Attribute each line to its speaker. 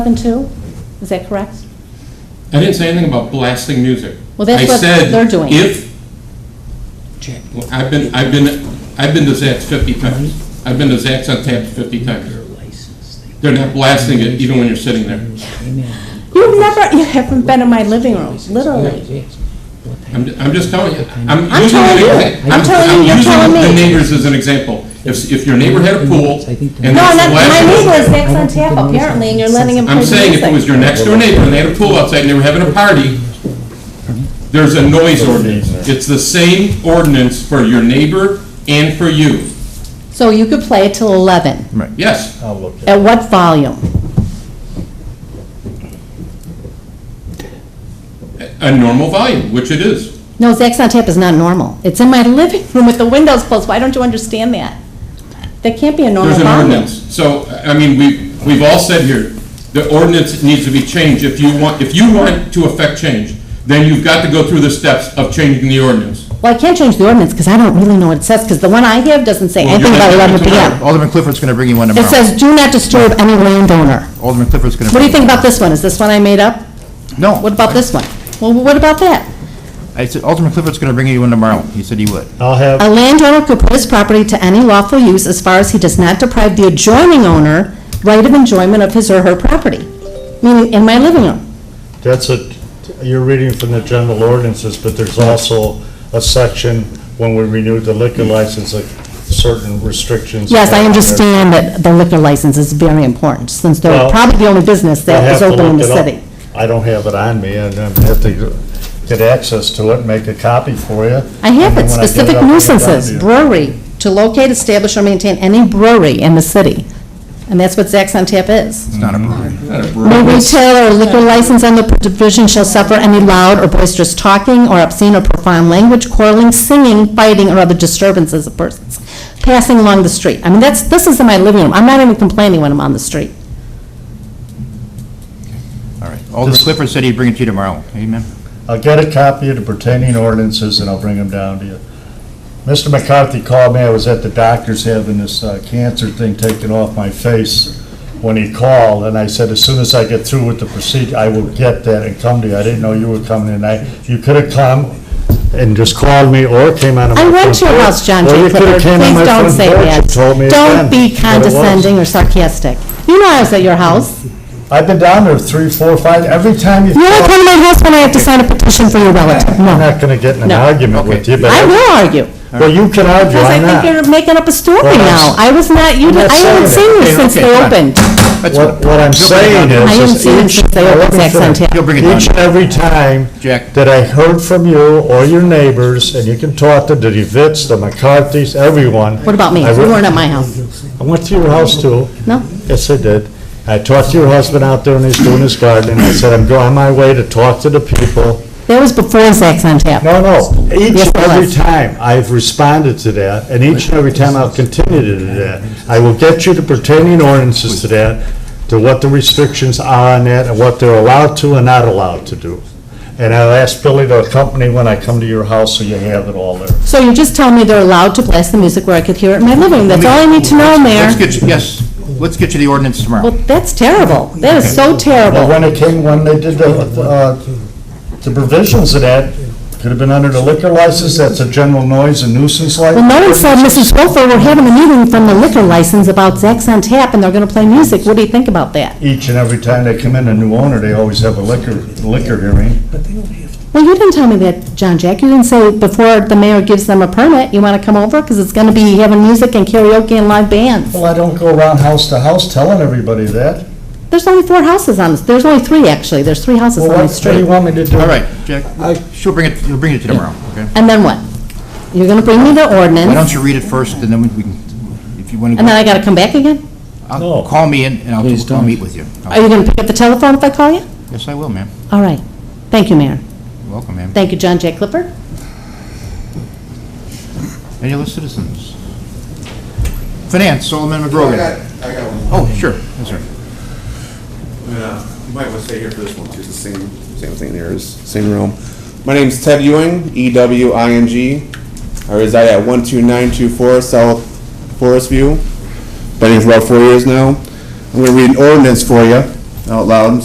Speaker 1: and two? Is that correct?
Speaker 2: I didn't say anything about blasting music.
Speaker 1: Well, that's what they're doing.
Speaker 2: I said, if, Well, I've been, I've been, I've been to Zax 50
Speaker 1: Mm-hmm.
Speaker 2: times. I've been to Zax on tap 50 times. They're not blasting it even when you're sitting there.
Speaker 1: You've never, you haven't been in my living room, literally.
Speaker 2: I'm, I'm just telling you, I'm
Speaker 1: I'm
Speaker 2: using,
Speaker 1: telling
Speaker 2: an
Speaker 1: you.
Speaker 2: exa-
Speaker 1: I'm
Speaker 2: I'm
Speaker 1: telling you, you're
Speaker 2: I'm
Speaker 1: telling
Speaker 2: using the
Speaker 1: me.
Speaker 2: neighbors as an example. If, if your neighbor had a pool
Speaker 1: No,
Speaker 2: and that's the
Speaker 1: not, my
Speaker 2: last...
Speaker 1: neighbor is Zax on tap apparently, and you're letting him play
Speaker 2: I'm
Speaker 1: music.
Speaker 2: saying if it was your next door neighbor and they had a pool outside and they were having a party, there's a noise ordinance. It's the same ordinance for your neighbor and for you.
Speaker 1: So you could play it till 11.
Speaker 2: Yes,
Speaker 3: I'll look at it.
Speaker 1: At what volume?
Speaker 2: a normal volume, which it is.
Speaker 1: No, Zax on tap is not normal. It's in my living room with the windows closed. Why don't you understand that? That can't be a normal
Speaker 2: There's an
Speaker 1: volume.
Speaker 2: ordinance. So, I mean, we, we've all said here, the ordinance needs to be changed. If you want, if you want to affect change, then you've got to go through the steps of changing the ordinance.
Speaker 1: Well, I can't change the ordinance because I don't really know what it says, because the one I have doesn't say
Speaker 2: Well,
Speaker 1: anything
Speaker 2: you're
Speaker 1: about
Speaker 2: not-
Speaker 1: 11 PM.
Speaker 3: Alderman Clifford's going to bring you one
Speaker 1: It
Speaker 3: tomorrow.
Speaker 1: says, "Do not disturb any landowner."
Speaker 3: Alderman Clifford's going to.
Speaker 1: What do you think about this one? Is this one I made up?
Speaker 3: No.
Speaker 1: What about this one? Well, what about that?
Speaker 3: I said Alderman Clifford's going to bring you one tomorrow. He said he would.
Speaker 4: I'll have,
Speaker 1: A landowner could put his property to any lawful use as far as he does not deprive the adjoining owner right of enjoyment of his or her property, meaning in my living room.
Speaker 4: that's a, you're reading from the general ordinances, but there's also a section when we renewed the liquor license, like certain restrictions.
Speaker 1: Yes, I understand that the liquor license is very important, since they're
Speaker 4: Well,
Speaker 1: probably the only business
Speaker 4: I
Speaker 1: that
Speaker 4: have
Speaker 1: is
Speaker 4: to
Speaker 1: open in the
Speaker 4: look it up.
Speaker 1: city.
Speaker 4: I don't have it on me, and I have to get access to it, and make a copy for you.
Speaker 1: I have it,
Speaker 4: And then when get
Speaker 1: specific
Speaker 4: up, I'll get it down
Speaker 1: nuisances,
Speaker 4: to you.
Speaker 1: brewery, to locate, establish, or maintain any brewery in the city. And that's what Zax on Tap is.
Speaker 3: It's Mm-hmm. not a problem.
Speaker 1: No retailer or liquor license on the provision shall suffer any loud or boisterous talking or obscene or profound language, quarreling, singing, fighting, or other disturbances of persons passing along the street. I mean, that's, this is in my living room. I'm not even complaining when I'm on the street.
Speaker 3: All right. Alderman Clifford said he'd bring it to you tomorrow. Amen.
Speaker 4: I'll get a copy of the pertaining ordinances, and I'll bring them down to you. Mr. McCarthy called me, I was at the doctor's having this uh, cancer thing taken off my face when he called, and I said, as soon as I get through with the procedure, I will get that and come to you. I didn't know you were coming tonight. You could have come and just called me or came out of my
Speaker 1: I
Speaker 4: front
Speaker 1: went to your
Speaker 4: door.
Speaker 1: house, John
Speaker 4: Or
Speaker 1: J.
Speaker 4: you could
Speaker 1: Clifford.
Speaker 4: have came on
Speaker 1: Please
Speaker 4: my
Speaker 1: don't
Speaker 4: front
Speaker 1: say
Speaker 4: porch
Speaker 1: that.
Speaker 4: and told me
Speaker 1: Don't
Speaker 4: again
Speaker 1: be
Speaker 4: what it was.
Speaker 1: condescending or sarcastic. You know I was at your house.
Speaker 4: I've been down there three, four, five, every time you
Speaker 1: You only come
Speaker 4: call,
Speaker 1: to my house when I have to sign a petition for your relative.
Speaker 4: I'm
Speaker 1: No.
Speaker 4: not gonna get in an
Speaker 1: No.
Speaker 4: argument with
Speaker 3: Okay.
Speaker 4: you, but.
Speaker 1: I will argue.
Speaker 4: Well, you can argue,
Speaker 1: Because I
Speaker 4: I'm
Speaker 1: think
Speaker 4: not.
Speaker 1: you're making up a story
Speaker 4: Well,
Speaker 1: now.
Speaker 4: that's-
Speaker 1: I was not, you,
Speaker 4: I'm
Speaker 1: did-
Speaker 4: not
Speaker 1: I haven't
Speaker 4: saying
Speaker 1: seen
Speaker 4: that.
Speaker 1: you
Speaker 3: Okay,
Speaker 1: since
Speaker 3: okay,
Speaker 1: they
Speaker 3: fine.
Speaker 1: opened.
Speaker 3: That's
Speaker 4: What, what I'm
Speaker 3: He'll bring it down
Speaker 4: saying
Speaker 3: to you.
Speaker 1: I am
Speaker 4: is,
Speaker 1: seeing
Speaker 4: is each,
Speaker 1: since they opened
Speaker 4: let me
Speaker 1: Zack's on
Speaker 4: finish.
Speaker 1: tap.
Speaker 3: He'll bring it down.
Speaker 4: each and
Speaker 3: to you.
Speaker 4: every time
Speaker 3: Jack.
Speaker 4: that I heard from you or your neighbors, and you can talk to the DeWitts, the McCarthys, everyone.
Speaker 1: What about me?
Speaker 4: I
Speaker 1: You
Speaker 4: went-
Speaker 1: weren't at my house.
Speaker 4: I went to your house too.
Speaker 1: No?
Speaker 4: Yes, I did. I talked to your husband out there and he's doing his gardening. I said, I'm going on my way to talk to the people.
Speaker 1: That was before Zax on Tap.
Speaker 4: No, no, each
Speaker 1: Yes,
Speaker 4: and
Speaker 1: it
Speaker 4: every
Speaker 1: was.
Speaker 4: time I've responded to that, and each and every time I'll continue to do that. I will get you the pertaining ordinances to that, to what the restrictions are on that, and what they're allowed to and not allowed to do. And I'll ask Billy to accompany when I come to your house, so you have it all there.
Speaker 1: So you're just telling me they're allowed to blast the music where I could hear it in my living room. That's all I need to know,
Speaker 3: Let's
Speaker 1: Mayor.
Speaker 3: get you, yes, let's get you the ordinance
Speaker 1: Well,
Speaker 3: tomorrow.
Speaker 1: that's terrible. That is so
Speaker 4: But
Speaker 1: terrible.
Speaker 4: when it came, when they did the, uh, the provisions of that, could have been under the liquor license, that's a general noise and nuisance
Speaker 1: Well,
Speaker 4: license.
Speaker 1: no one said, Mrs. Wilfer, we're having a meeting from the liquor license about Zax on Tap, and they're gonna play music. What do you think about that?
Speaker 4: Each and every time they come in, a new owner, they always have a liquor, liquor hearing.
Speaker 1: Well, you didn't tell me that, John Jack. You didn't say before the mayor gives them a permit, you want to come over? Because it's going to be having music and karaoke and live bands.
Speaker 4: Well, I don't go around house to house telling everybody that.
Speaker 1: There's only four houses on this. There's only three, actually. There's three houses
Speaker 4: Well,
Speaker 1: on
Speaker 4: what
Speaker 1: the
Speaker 4: what do you
Speaker 1: street.
Speaker 4: want me to do?
Speaker 3: All right, Jack, she'll bring it, he'll bring it to you tomorrow, okay?
Speaker 1: And then what? You're going to bring me the
Speaker 3: Why don't
Speaker 1: ordinance,
Speaker 3: you read it first, and then we can, if you want
Speaker 1: and then I
Speaker 3: to,
Speaker 1: got to come back again?
Speaker 3: I'll call me in, and I'll, I'll meet with you. I'll-
Speaker 1: Are you going to pick up the telephone if I call you?
Speaker 3: Yes, I will, ma'am.
Speaker 1: All right. Thank you, Mayor.
Speaker 3: You're Welcome, ma'am.
Speaker 1: Thank you, John Jack Clifford.
Speaker 3: Any other citizens? Finance, Solomon
Speaker 5: I
Speaker 3: McGrogan.
Speaker 5: got, I got one.
Speaker 3: Oh, sure, yes, sir.
Speaker 5: Yeah, You might want to stay here for this one, too, it's the same, same thing there, it's same room. My name's Ted Ewing, E W I N G. I reside at one two nine two four South Forest View. Been here for about four years now. I'm gonna read an ordinance for you. out loud,